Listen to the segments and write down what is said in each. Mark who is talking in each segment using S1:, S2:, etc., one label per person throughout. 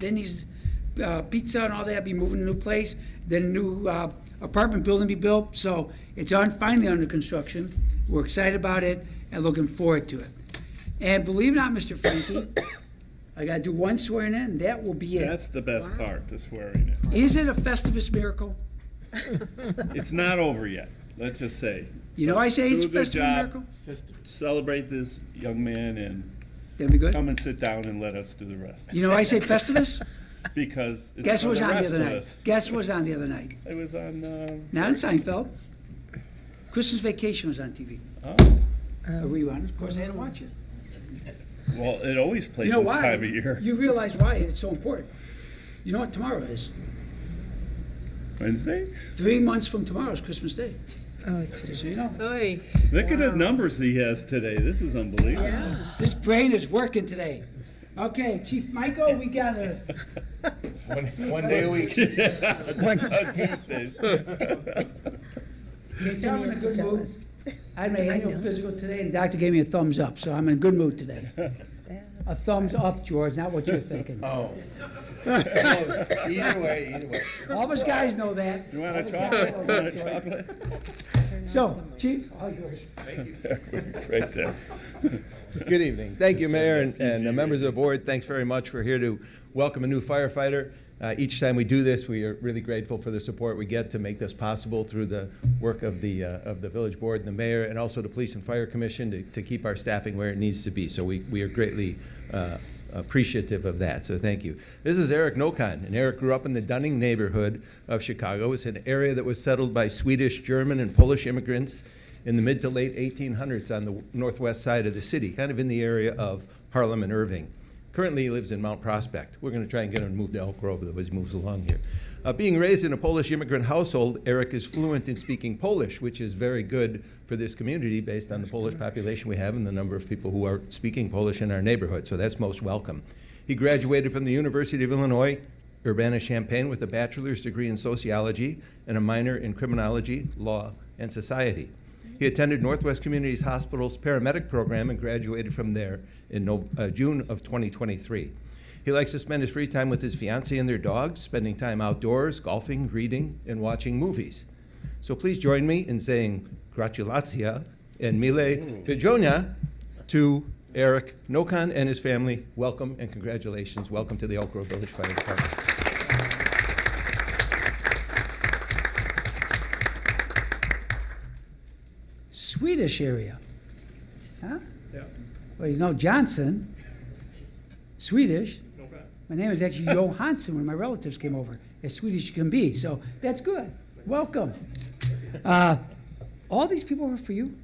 S1: Benny's uh, Pizza and all that be moving to a new place, then a new uh, apartment building be built, so it's on, finally under construction. We're excited about it and looking forward to it. And believe it or not, Mr. Frankie, I gotta do one swearing in, and that will be it.
S2: That's the best part, the swearing in.
S1: Is it a Festivus miracle?
S2: It's not over yet, let's just say.
S1: You know I say it's
S2: Do a good
S1: Festivus
S2: job.
S1: miracle?
S2: Celebrate this young man and
S1: That'd be good.
S2: come and sit down and let us do the rest,
S1: You know I say Festivus?
S2: because it's
S1: Guess
S2: for
S1: what was
S2: the
S1: on the
S2: rest
S1: other
S2: of
S1: night?
S2: us.
S1: Guess what was on the other night?
S2: It was on, uh,
S1: Not in Seinfeld. Christmas Vacation was on TV.
S2: oh,
S1: A rerun. Of course, I had to watch it.
S2: well, it always plays
S1: You know
S2: this
S1: why?
S2: time of year,
S1: You realize why it's so important. You know what tomorrow is?
S2: Wednesday.
S1: Three months from tomorrow is Christmas Day. Just so you know.
S3: Oy.
S2: Look at the numbers he has today, this is unbelievable.
S1: This brain is working today. Okay, Chief Michael, we got a,
S4: One day a week.
S2: On Tuesdays.
S1: okay, Tom, I'm in a good
S3: Tell
S1: mood.
S3: us.
S1: I had my annual physical today, and the doctor gave me a thumbs up, so I'm in a good mood today. A thumbs up, George, not what you're thinking.
S4: Oh. Either way, either way.
S1: All of us guys know that.
S2: You want
S1: All of
S2: a
S1: us guys
S2: chocolate?
S1: know
S2: You
S1: that,
S2: want a
S1: George.
S2: chocolate?
S1: So, Chief, all yours.
S2: Right there.
S5: Good evening. Thank you, Mayor, and, and the members of the board. Thanks very much. We're here to welcome a new firefighter. Uh, each time we do this, we are really grateful for the support we get to make this possible through the work of the, uh, of the village board and the mayor, and also the police and fire commission to, to keep our staffing where it needs to be. So we, we are greatly, uh, appreciative of that, so thank you. This is Eric Nokon, and Eric grew up in the Dunning neighborhood of Chicago. It's an area that was settled by Swedish, German, and Polish immigrants in the mid to late 1800s on the northwest side of the city, kind of in the area of Harlem and Irving. Currently, he lives in Mount Prospect. We're going to try and get him to move to Elk Grove, though, as he moves along here. Uh, being raised in a Polish immigrant household, Eric is fluent in speaking Polish, which is very good for this community based on the Polish population we have and the number of people who are speaking Polish in our neighborhood, so that's most welcome. He graduated from the University of Illinois Urbana-Champaign with a bachelor's degree in sociology and a minor in criminology, law, and society. He attended Northwest Communities Hospital's paramedic program and graduated from there in no, uh, June of 2023. He likes to spend his free time with his fiancee and their dogs, spending time outdoors, golfing, reading, and watching movies. So please join me in saying gratulatia and mile pijonia to Eric Nokon and his family. Welcome and congratulations. Welcome to the Elk Grove Village Fire Department.
S1: Swedish area. Huh? Well, you know Johnson, Swedish. My name is actually Johansson when my relatives came over, as Swedish as can be, so that's good. Welcome. Uh, All these people are for you?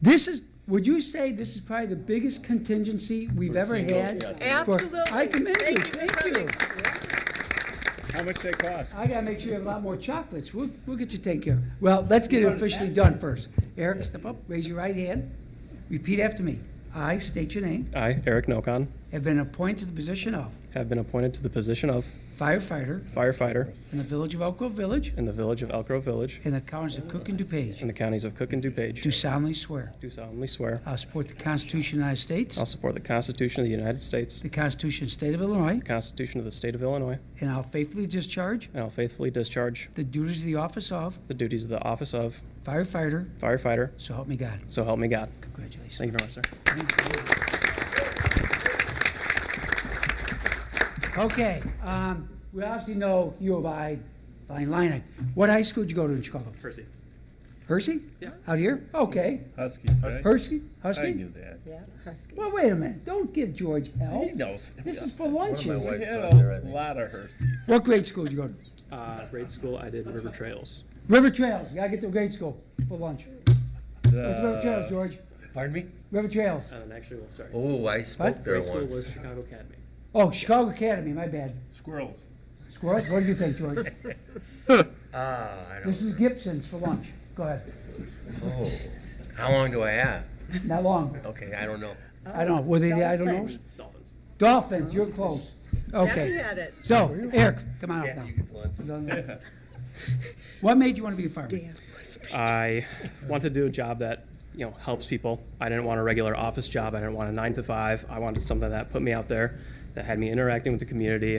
S1: This is, would you say this is probably the biggest contingency we've ever had? For- I commend you, Eh, thank you.
S2: How much they cost?
S1: I gotta make sure you have a lot more chocolates. We'll, we'll get you taken care of. Well, let's get it officially done first. Eric, step up, raise your right hand. Repeat after me. I state your name.
S6: I, Eric Nokon,
S1: Have been appointed to the position of
S6: have been appointed to the position of
S1: firefighter
S6: firefighter
S1: in the village of Elk Grove Village
S6: in the village of Elk Grove Village
S1: in the counties of Cook and
S6: in
S1: DuPage.
S6: the counties of Cook and
S1: Do
S6: DuPage.
S1: solemnly swear.
S6: Do solemnly swear.
S1: I'll support the Constitution of the United States,
S6: I'll support the Constitution of the United States,
S1: the Constitution of the State of Illinois,
S6: the Constitution of the State of Illinois,
S1: and I'll faithfully discharge
S6: and I'll faithfully discharge
S1: the duties of the office of
S6: the duties of the office of
S1: firefighter,
S6: firefighter.
S1: so help me God.
S6: So help me God.
S1: Congratulations.
S6: Thank you very much, sir.
S1: Okay, um, we obviously know U of I, fine line. What high school did you go to in Chicago?
S6: Percy.
S1: Hershey?
S6: Yeah.
S1: Out here? Okay.
S2: Huskies, right?
S1: Hershey?
S2: I
S1: Husky?
S2: knew that.
S3: Yeah, Huskies.
S1: Well, wait a minute. Don't give George hell.
S2: He knows.
S1: This is for
S2: We
S1: lunches.
S2: had
S4: Wife's not there, I
S2: a
S4: think.
S2: lot of Hershey's.
S1: What grade school did you go to?
S6: Uh, grade school, I did River Trails.
S1: River Trails. You gotta get to grade school for lunch. Where's
S2: Uh,
S1: River Trails, George?
S4: Pardon me?
S1: River Trails.
S6: Um, actually, well, sorry.
S4: Oh, I spoke there once.
S6: was Chicago Academy.
S1: Oh, Chicago Academy, my bad.
S2: Squirrels.
S1: Squirrels, what do you think, George?
S4: Ah, I
S1: This
S4: don't,
S1: is Gibson's for lunch. Go ahead.
S4: oh. How long do I have?
S1: Not long.
S4: Okay, I don't know.
S1: I don't know. Were they, the I don't know?
S3: Dolphins.
S6: Dolphins.
S1: Dolphins, you're close.
S3: Debbie
S1: Okay.
S3: had it.
S1: So, Eric, come on up now. What made you want to be a fireman?
S3: Damn.
S6: I wanted to do a job that you know helps people. I didn't want a regular office job. I didn't want a nine to five. I wanted something that put me out there that had me interacting with the community,